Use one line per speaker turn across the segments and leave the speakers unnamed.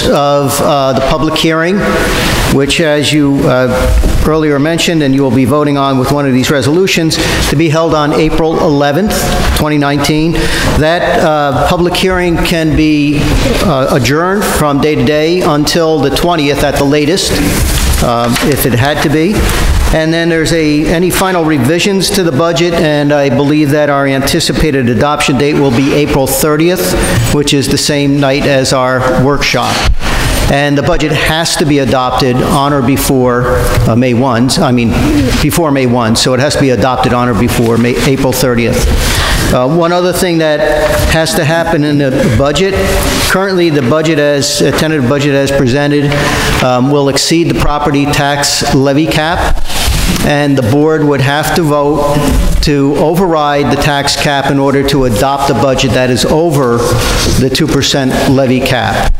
notice of uh, the public hearing, which, as you uh, earlier mentioned, and you will be voting on with one of these resolutions, to be held on April 11th, 2019. That uh, public hearing can be uh, adjourned from day to day until the 20th at the latest, um, if it had to be. And then there's a, any final revisions to the budget, and I believe that our anticipated adoption date will be April 30th, which is the same night as our workshop. And the budget has to be adopted on or before uh, May 1, I mean, before May 1, so it has to be adopted on or before May, April 30th. Uh, One other thing that has to happen in the budget, currently, the budget as, uh, tentative budget as presented um, will exceed the property tax levy cap, and the board would have to vote to override the tax cap in order to adopt a budget that is over the 2% levy cap.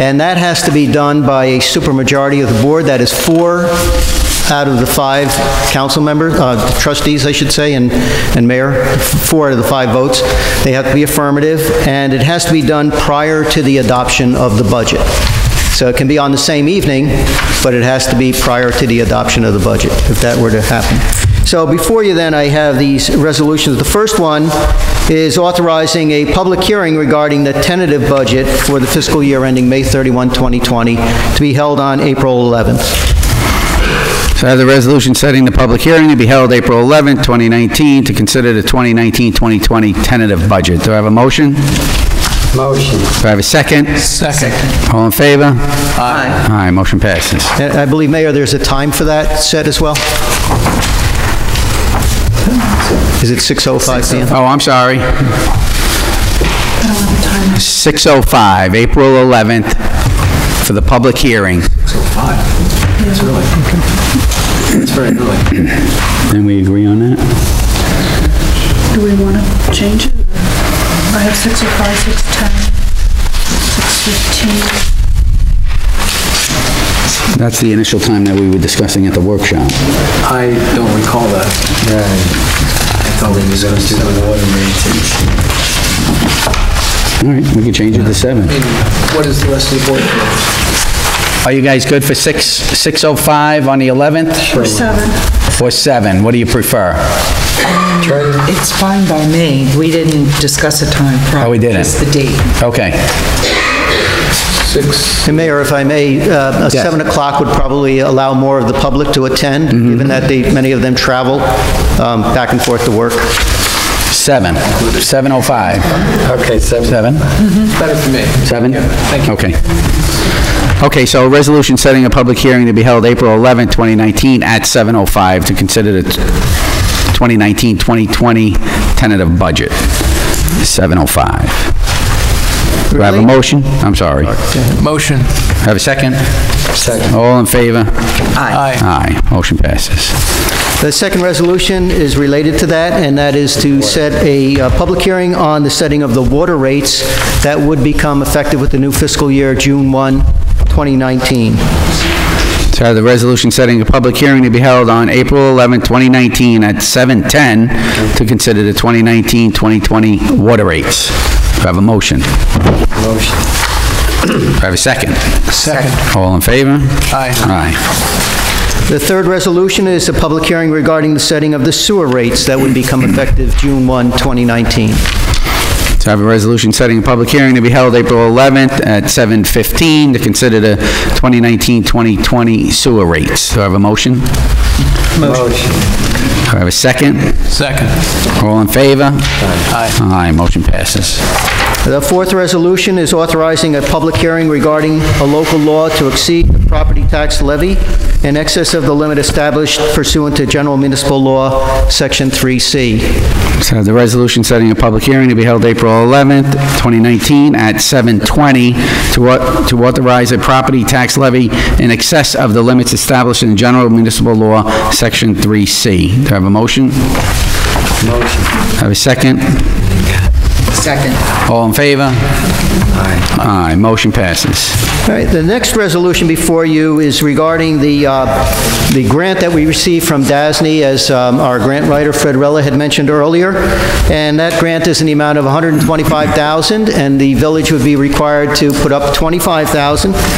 And that has to be done by a supermajority of the board, that is four out of the five council members, uh, trustees, I should say, and, and mayor, four out of the five votes, they have to be affirmative, and it has to be done prior to the adoption of the budget. So it can be on the same evening, but it has to be prior to the adoption of the budget, if that were to happen. So before you then, I have these resolutions. The first one is authorizing a public hearing regarding the tentative budget for the fiscal year ending May 31, 2020, to be held on April 11th.
So I have the resolution setting the public hearing to be held April 11, 2019, to consider the 2019-2020 tentative budget. Do I have a motion? Do
Motion.
I have a second?
Second.
All in favor? Aye. Aye, motion passes.
And I believe, Mayor, there's a time for that set as well? Is it 6:05 PM?
Oh, I'm sorry. 6:05, April 11th, for the public hearing.
It's oh really, it's very early.
And we agree on that?
Do we want to change it? I have 6:05, 6:10, 6:15.
That's the initial time that we were discussing at the workshop.
I don't recall that. I thought we was going to do the water main.
All right, we can change it to 7.
What is the rest of the board?
Are you guys good for 6, 6:05 on the 11th?
Or seven.
Or 7? What do you prefer?
It's fine by me. We didn't discuss a time.
Oh, we didn't.
Just the date.
Okay.
Six,
And Mayor, if I may, uh, a 7 o'clock would probably allow more of the public to attend, given that they, many of them travel um, back and forth to work.
7, 7:05.
okay, seven,
7?
Mm-hmm. better for me.
7?
thank you.
Okay. Okay, so a resolution setting a public hearing to be held April 11, 2019, at 7:05 to consider the 2019-2020 tentative budget. 7:05. Do I have a motion? I'm sorry.
Motion.
Have a second?
Second.
All in favor?
Aye.
Aye. Motion passes.
The second resolution is related to that, and that is to set a uh, public hearing on the setting of the water rates that would become effective with the new fiscal year, June 1, 2019.
So I have the resolution setting a public hearing to be held on April 11, 2019, at 7:10 to consider the 2019-2020 water rates. Do I have a motion? Do
Motion.
I have a second?
Second.
All in favor?
Aye.
Aye.
The third resolution is a public hearing regarding the setting of the sewer rates that would become effective June 1, 2019.
So I have a resolution setting a public hearing to be held April 11th at 7:15 to consider the 2019-2020 sewer rates. Do I have a motion? Do
Motion.
I have a second?
Second.
All in favor?
Aye.
Aye, motion passes.
The fourth resolution is authorizing a public hearing regarding a local law to exceed the property tax levy in excess of the limit established pursuant to General Municipal Law, Section 3C.
So the resolution setting a public hearing to be held April 11th, 2019, at 7:20 to au- to authorize a property tax levy in excess of the limits established in General Municipal Law, Section 3C. Do I have a motion? Motion. Have a second?
Second.
All in favor? Aye. Aye, motion passes.
All right, the next resolution before you is regarding the, uh, the grant that we received from DASNY, as um, our grant writer Fred Rella had mentioned earlier, and that grant is in the amount of $125,000, and the village would be required to put up $25,000.